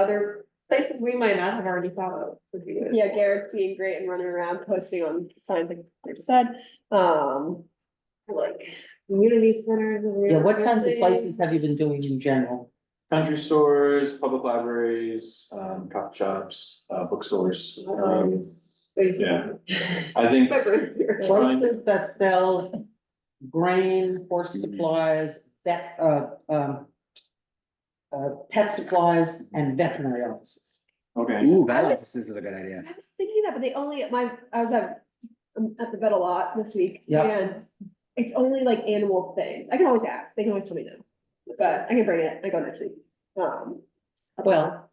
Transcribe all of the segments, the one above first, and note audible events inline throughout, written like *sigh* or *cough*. other places we might not have already thought of. would be good. Yeah, Garrett's being great and running around posting on signs like we just said, um. Like, community centers. and Yeah, what kinds of resources. places have you been doing in general? Country stores, public libraries, um, coffee shops, uh, bookstores. Um, Libraries, basically. yeah. *laughs* I think Library here. Trying- Places that sell grain, horse Mm. supplies, vet, uh, um. Uh, pet supplies and veterinary offices. Okay, Ooh, that office is a good idea. I was thinking that, but they only, my, I was at, I'm at the vet a lot this week. Yeah. And it's only like animal things. I can always ask, they can always tell me no. But I can bring it, I go next week. Um, Well,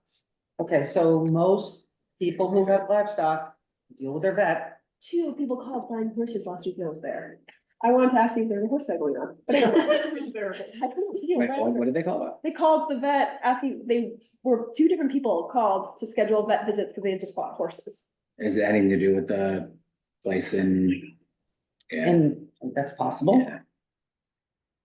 okay, so most people who have livestock deal with their vet. two people called flying horses last week when I was there. I wanted to ask you if there was a horse sale going on. but I couldn't- *laughs* I couldn't figure Wait, it what, out. what did they call it? They called the vet asking, they were, two different people called to schedule vet visits because they had just bought horses. Is it anything to do with the place in? Yeah, And that's possible. yeah.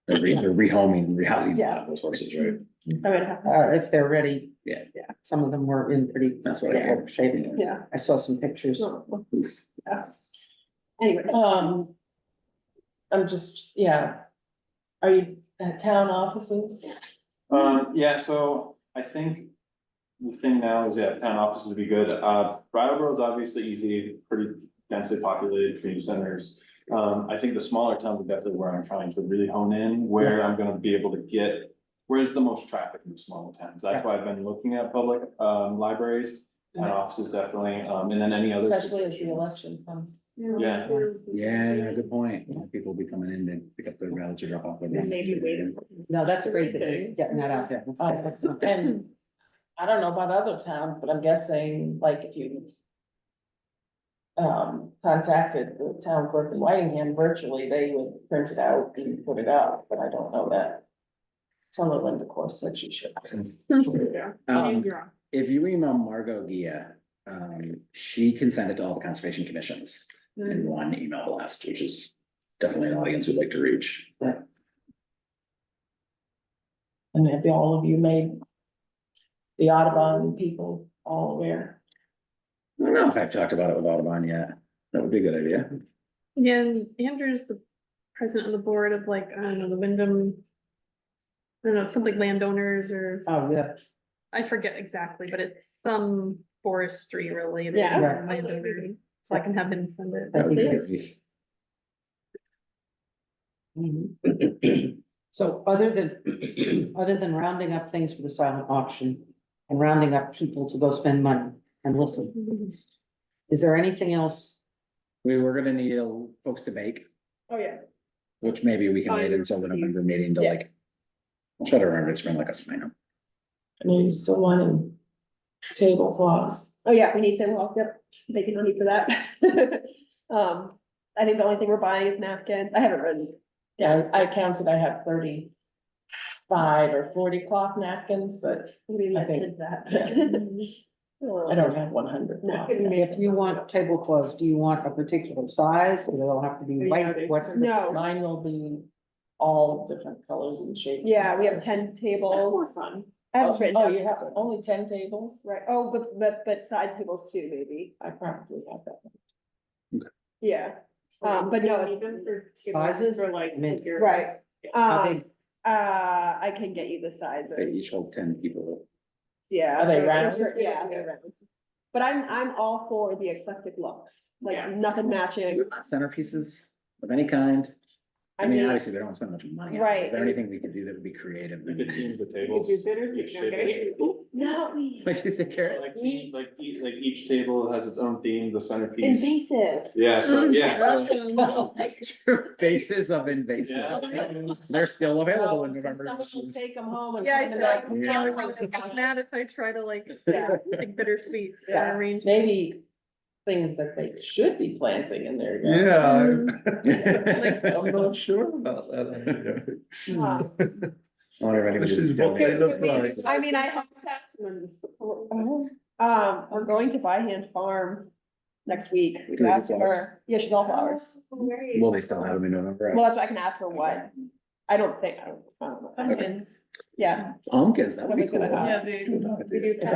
They're re, they're rehoming, rehoming a lot of those horses, right? I would have, Uh, if they're ready. Yeah. Yeah, some of them were in pretty. That's what I bad heard. shape. yeah. I saw some pictures. Well, Oof. Anyways, Um, I'm just, yeah. Are you at town offices? um, yeah, so I think the thing now is, yeah, town offices would be good. Uh, Brattleboro is obviously easy, pretty densely populated community centers. Um, I think the smaller towns are definitely where I'm trying to really hone in, where I'm gonna be able to get, where's the most traffic in the smaller towns? That's why I've been looking at public, um, libraries, town offices definitely, um, and then any other. Especially as the suggestions. election comes. Yeah. Yeah, good point. People will be coming in to pick up their ballots or drop off. their ballots. Maybe waiting. No, that's great that you're getting that out there. That's- that's- And I don't know about other towns, but I'm guessing like if you. Um, contacted the town clerk in Whitingham virtually, they would print it out and put it out, but I don't know that. Tell her Linda course that she should. Um, If you email Margot Gia, um, she can send it to all the conservation commissions in one email blast, which is definitely an audience we'd like to reach. And if all of you made. The Audubon people all aware. I don't know if I've talked about it with Audubon yet. That would be a good idea. Yeah, and Andrew's the president of the board of like, I don't know, the Wyndham. I don't know, it's something landowners or, Oh, yeah, I forget exactly, but it's some forestry related. Yeah. Right. landowner, So I can have him send it. I That would be think great. it's. Mm-hmm. *clears throat* So other than, *clears throat* other than rounding up things for the silent auction and rounding up people to go spend money and listen, is there anything else? We were gonna need uh, folks to bake, oh yeah. which maybe we can Oh, wait until the please. November meeting to Yeah. like. I'll try to remember, it's been like a sign up. I know you still wanting tablecloths. Oh, yeah, we need to, well, yep, making money for that. *laughs* Um, I think the only thing we're buying is napkins. I haven't written. Yeah, I counted, I have thirty five or forty cloth napkins, but Maybe I I think- did that. *laughs* Um, I don't have one hundred cloth. If you want tablecloths, do you want a particular size? Do they all have to be white? What's the, No, Mine will be all different colors and shapes. yeah, we have ten tables. I Oh, haven't written. oh, down- you have only ten tables? Right, oh, but, but, but side tables too, maybe. I probably have that. Yeah, Um, but no, it's- Sizes? Or like. Mint. figure- right. how Um, big? uh, I can get you the sizes. They each hold ten people. Yeah. Are they they're- round? they're- Yeah, they're round. But I'm, I'm all for the eclectic look, Yeah. like nothing matching. Centerpieces of any kind. I I mean, mean, obviously, we don't want to spend much money. on it. Is Right. there anything we could do that would be creative? You could and- team the You could tables. do bitters, each you know, table- okay. not we, What'd you say, *laughs* Karen? Like, each- like, each- like each table has its own theme, the centerpiece. invasive. Yeah, *laughs* so, yeah, Mm-hmm. so, Um, yeah. Oh, Faces of invasive. They're still available in November. Someone will take them home and. Yeah, put I feel them like, back. Yeah. I'm like, it's mad if I try to like, Yeah. like bittersweet uh, Yeah. arrange. Maybe things that they should be planting in their yard. Yeah. *laughs* Like- I'm not sure about that. Um, I wonder if anybody. This is what they look like. I mean, I hope that, um, we're going to buy hand farm next week. We Do can they do ask flowers? her, yeah, she's all flowers. Will they still have them in November? Well, that's why I can ask her what. I don't think, I don't, I don't know. Pumpkins. Yeah. Pumpkins, that would be Somebody's cool. gonna have- Yeah, they- Good idea.